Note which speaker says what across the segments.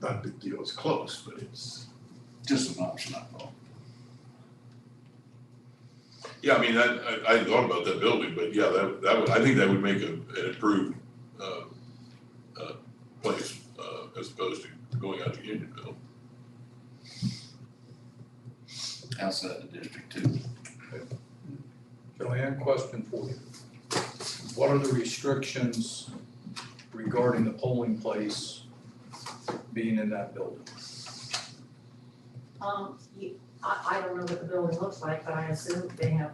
Speaker 1: not a big deal, it's close, but it's just an option I thought.
Speaker 2: Yeah, I mean, that, I, I hadn't thought about that building, but yeah, that, that would, I think that would make a, an improved, uh, uh, place, uh, as opposed to going out to Unionville.
Speaker 3: outside the district too.
Speaker 4: Joanne, question for you. What are the restrictions regarding the polling place being in that building?
Speaker 5: Um, you, I, I don't know what the building looks like, but I assume they have,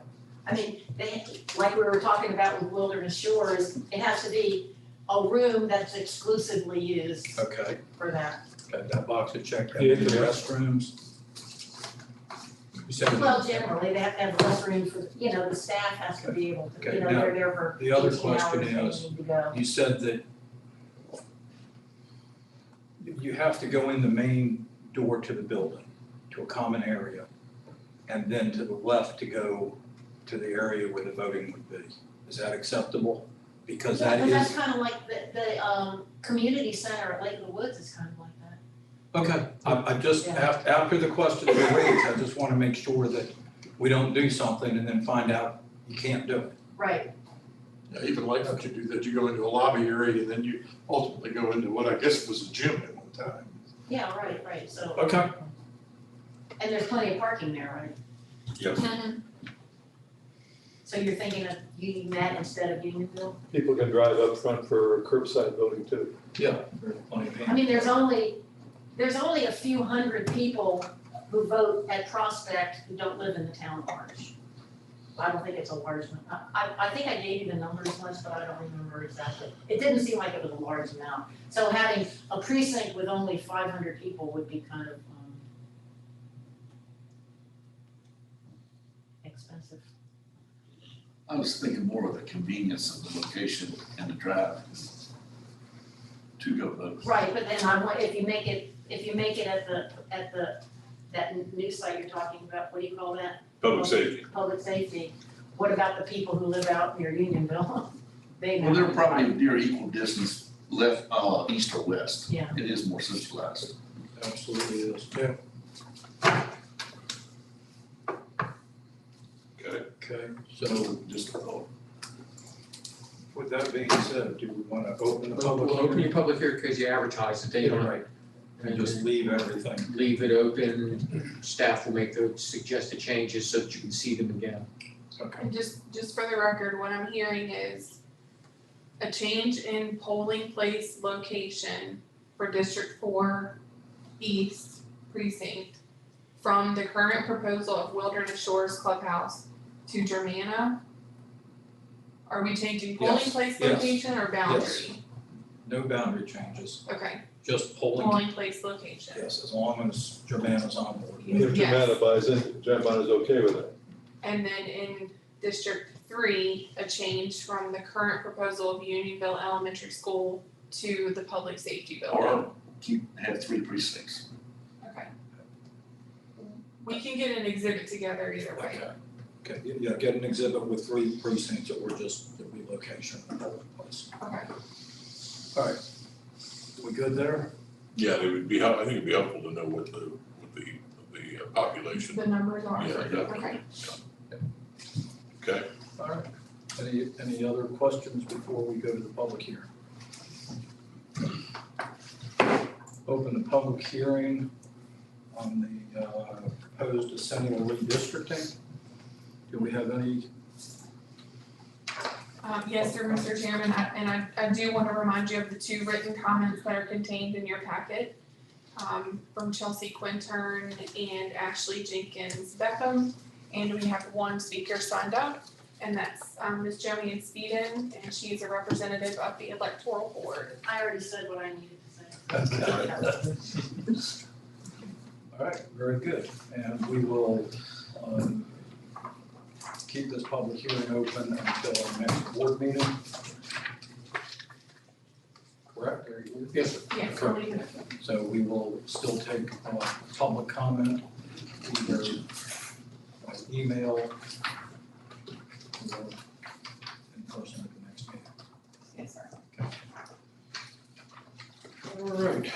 Speaker 5: I mean, they, like we were talking about with Wilderness Shores, it has to be a room that's exclusively used
Speaker 4: Okay,
Speaker 5: for that.
Speaker 4: got that box to check, that
Speaker 6: Yeah,
Speaker 4: in the
Speaker 6: yeah.
Speaker 4: restrooms? You said
Speaker 5: Well, generally, they have to have less room for, you know, the staff has to be able to,
Speaker 4: Okay,
Speaker 5: you know,
Speaker 4: now,
Speaker 5: they're there for
Speaker 4: the
Speaker 5: eighteen
Speaker 4: other
Speaker 5: hours,
Speaker 4: question
Speaker 5: they
Speaker 4: is-
Speaker 5: need to go.
Speaker 4: You said that you have to go in the main door to the building, to a common area, and then to the left to go to the area where the voting would be. Is that acceptable? Because that
Speaker 5: But that's
Speaker 4: is,
Speaker 5: kind of like the, the, um, community center at Lake of the Woods is kind of like that.
Speaker 4: okay, I, I just,
Speaker 5: Yeah.
Speaker 4: af- after the question was raised, I just want to make sure that we don't do something and then find out you can't do it.
Speaker 5: Right,
Speaker 1: Yeah, even like that you do that, you go into a lobby area and then you ultimately go into what I guess was a gym at one time.
Speaker 5: yeah, right, right, so,
Speaker 4: Okay.
Speaker 5: and there's plenty of parking there, right? Mm-hmm.
Speaker 2: Yes.
Speaker 5: So you're thinking of Union Met instead of Unionville?
Speaker 6: People can drive up front for curbside voting too.
Speaker 4: Yeah. there's plenty of
Speaker 5: I mean, there's only, there's only a few hundred people who vote at Prospect who don't live in the town at large. I don't think it's a large, num- I, I, I think I gave you the numbers once, but I don't remember exactly. It didn't seem like it was a large amount. So having a precinct with only five hundred people would be kind of, um, expensive.
Speaker 3: I was thinking more of the convenience of the location and the drive to go vote.
Speaker 5: Right, but then I want, if you make it, if you make it at the, at the, that new site you're talking about, what do you call that?
Speaker 2: Public safety,
Speaker 5: Public safety, what about the people who live out near Unionville? They
Speaker 3: Well, they're
Speaker 5: know.
Speaker 3: probably near equal distance left, uh, east or west.
Speaker 5: Yeah.
Speaker 3: It is more centralized.
Speaker 4: Absolutely is.
Speaker 2: okay,
Speaker 4: Okay, so
Speaker 3: Just a thought.
Speaker 4: With that being said, do we want to open the
Speaker 7: Well,
Speaker 4: public
Speaker 7: we'll open your
Speaker 4: hearing?
Speaker 7: public hearing because you advertised it, they
Speaker 4: Yeah,
Speaker 7: don't,
Speaker 4: right. And just leave everything.
Speaker 7: leave it open, staff will make the suggested changes so that you can see them again.
Speaker 4: Okay.
Speaker 8: And just, just for the record, what I'm hearing is a change in polling place location for District Four East Precinct from the current proposal of Wilderness Shores Clubhouse to Germana. Are we changing polling
Speaker 4: Yes,
Speaker 8: place
Speaker 4: yes,
Speaker 8: location or boundary?
Speaker 4: No boundary changes,
Speaker 8: Okay,
Speaker 4: just polling.
Speaker 5: Oh.
Speaker 8: polling place location.
Speaker 4: Yes, as long as Joanna's on board.
Speaker 8: Yeah.
Speaker 6: If Jemima buys in, Jemima is okay with it.
Speaker 8: And then in District Three, a change from the current proposal of Unionville Elementary School to the public safety building.
Speaker 3: Or keep, have three precincts.
Speaker 8: Okay. We can get an exhibit together either way.
Speaker 4: Okay. Okay, yeah, get an exhibit with three precincts that were just the relocation of the polling place.
Speaker 8: Okay.
Speaker 4: All right. We good there?
Speaker 2: yeah, it would be, hel- I think it'd be helpful to know what the, what the, the uh, population,
Speaker 8: The numbers
Speaker 2: yeah,
Speaker 8: are,
Speaker 2: definitely.
Speaker 8: okay.
Speaker 2: Okay,
Speaker 4: All right. Any, any other questions before we go to the public hearing? Open the public hearing on the uh, proposed assembly redistricting. Do we have any?
Speaker 8: Um, yes, sir, Mr. Chairman, I- and I, I do want to remind you of the two written comments that are contained in your packet um, from Chelsea Quintern and Ashley Jenkins Beckham. And we have one speaker signed up, and that's, um, Ms. Joanne Speeden, and she's a representative of the electoral board.
Speaker 5: I already said what I needed to
Speaker 4: All
Speaker 5: say.
Speaker 4: right, very good. And we will um, keep this public hearing open until our next board meeting. Correct? Are you-
Speaker 7: Yes, sir.
Speaker 8: Yes, so we can-
Speaker 4: So we will still take uh, public comment, either by email or in person at the next meeting.
Speaker 8: yes, sir.
Speaker 4: All right.